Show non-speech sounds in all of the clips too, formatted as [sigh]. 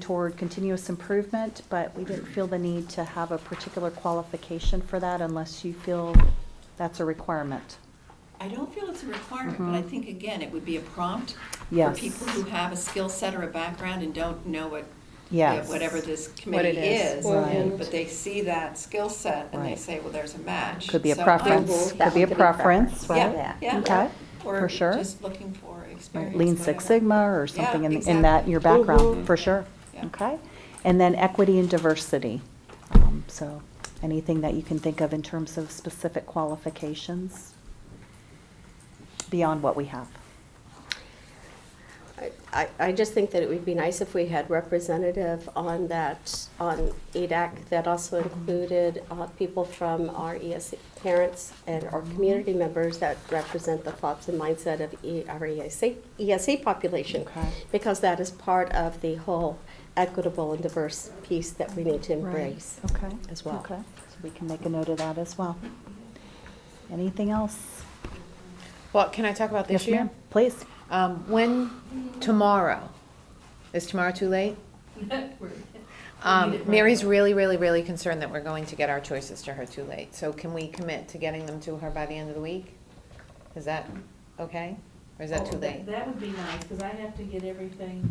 toward continuous improvement, but we didn't feel the need to have a particular qualification for that unless you feel that's a requirement. I don't feel it's a requirement, but I think, again, it would be a prompt for Mm-hmm. Yes. people who have a skill set or a background and don't know what, Yes. whatever this committee is. Well, Right. But they see that skill set and they Right. say, well, there's a match. Could be a So I'm- preference, That could be a one could be preference, Yeah, right? yeah. Okay, for Or sure. just looking for experience. Lean Six whatever. Sigma or something Yeah, in, in that, your background, Mhm. for sure. Yeah. Okay? And then equity and diversity. Um, So anything that you can think of in terms of specific qualifications beyond what we have. I, I just think that it would be nice if we had representative on that, on E EDAC that also Mm-hmm. included uh, people from our ESC parents and our Mm-hmm. community members that represent the thoughts and mindset of E- our ESC, ESC population. Okay. Because that is part of the whole equitable and diverse piece that we need to embrace. Okay. as well. Okay, so we can make a note of that as well. Anything else? Well, can I talk about Yes, this year? ma'am. Please. Um, when, tomorrow, is tomorrow too [laughs] late? Um, Mary's really, really, really concerned that we're going to get our choices to her too late. So can we commit to getting them to her by the end of the week? Is that okay? Or is that too Oh, late? That would be nice, because I have to get everything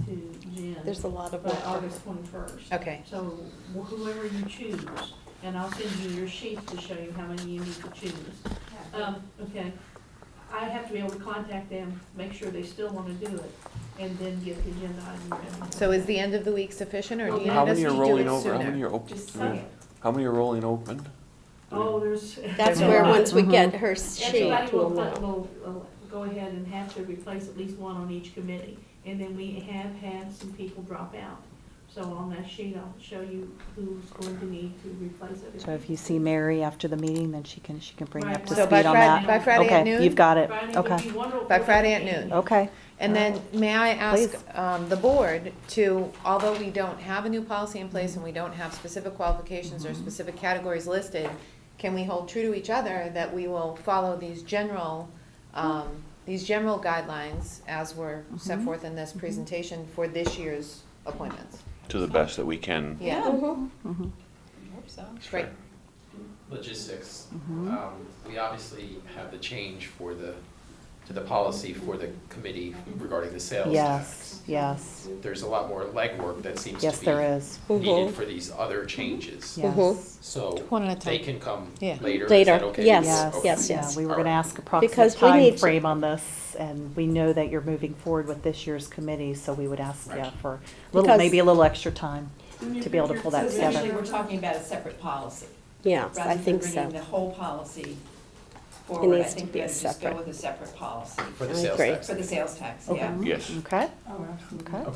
to Jen. There's a lot of By work. August twenty-first. Okay. So wh- whoever you choose, and I'll send you your sheets to show you how many you need to choose. Um, okay, I have to be able to contact them, make sure they still want to do it, and then get the agenda item ready. So is the end of the week sufficient, or do you need Well, How us to many do are rolling it over? How many sooner? are open? Just say it. How many are rolling open? Oh, there's. That's [laughs] There's a where, lot. Mm-hmm. once we get her sheet, Everybody we'll will, know. will, will go ahead and have to replace at least one on each committee. And then we have had some people drop out. So on that sheet, I'll show you who's going to need to replace it. So if you see Mary after the meeting, then she can, she can bring you up to speed Right. So on by that. Friday, by Friday at Okay, you've noon? got it. Friday would Okay, be wonderful. By Friday at noon. okay. And then, may I ask, Oh. Please. um, the board to, although we don't have a new policy in place and we don't have specific qualifications Mm-hmm. or specific categories listed, can we hold true to each other that we will follow these general, Mm-hmm. um, these general guidelines as were set Mhm. forth in this presentation for this year's appointments? To the best that we can. Yeah. Yeah, Mhm. Mhm. I hope so. great. logistics. Mhm. Um, We obviously have the change for the, to the policy for the committee regarding the sales tax. Yes, yes, There's a lot more legwork that seems to be yes, there is. Mhm. needed for these other changes. Mm-hmm. Yes. So One at a they time. can come Yeah. later. Is Later, that okay? yes, Yes, Okay. yes, yeah, yes. we were gonna ask approximate Because we need time to- frame on this, and we know that you're moving forward with this year's committee, so we would ask, Right. yeah, for a little, Because- maybe a little extra time to be able to pull So that essentially, together. we're talking about a separate policy. Yes, I think Rather than bringing so. the whole policy forward, I needs to think we be a have to just go separate. with a separate policy For the I sales agree. tax. for the sales tax, Okay. yeah. Yes. Okay, Oh, absolutely. okay.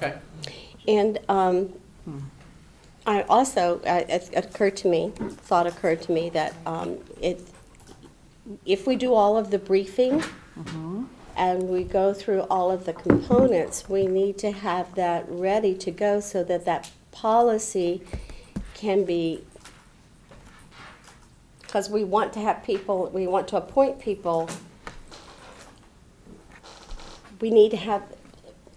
Okay. And um, I also, I- it occurred to me, thought occurred to me that um, it, if we do all of the briefing and we go through all of the components, we need to have that ready to go so that that policy can be, because we want to have people, we want to appoint people. We need to have,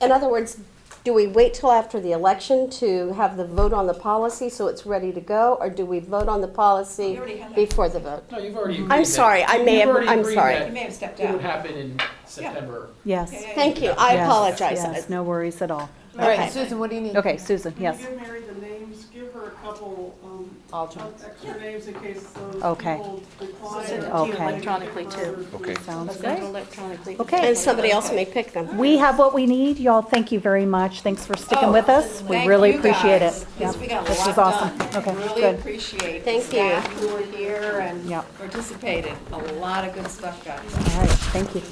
in other words, do we wait till after the election to have the vote on the policy so it's ready to go? Or do we vote on the policy We already had that. before the vote? No, you've already agreed. I'm that- sorry, I may you've have- already I'm agreed sorry. that You may have stepped It would out. happen in September. Yes. Yeah, yeah, yeah. Thank you, I Yes, apologize. Yes, no worries at all. All right, Okay. Susan, what do you need? Okay, Susan, Can you yes. give Mary the names, give her a couple, um, Alternates. extra names in case those Okay. people decline. send it or to you give her electronically, too. other- Okay. Sounds good. Okay. And somebody else may pick them. We have what we need. Y'all, thank you very much. Thanks for sticking Oh, with us. We thank really you appreciate guys, it. 'cause Yep, we got a This lot was awesome. done. Okay, Really good. appreciate the Thank staff who were here and Yep. participated. A lot of good stuff got done. All right, thank you.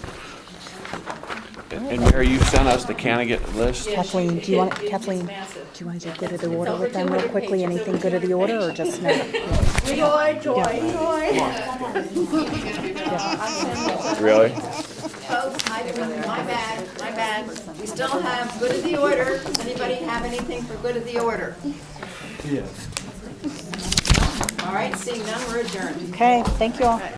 And and Mary, you sent us the candidate list? Yeah, she- Kathleen, do you want- it- it's Kathleen, massive. Do you want to do good of the order with them real quickly? Anything good of the order or just no? Joy, joy, joy. Really? Folks, my, my bad, my bad. We still have good of the order. Does anybody have anything for good of the order? Yes. All right, seeing none, we're adjourned. Okay, thank you all.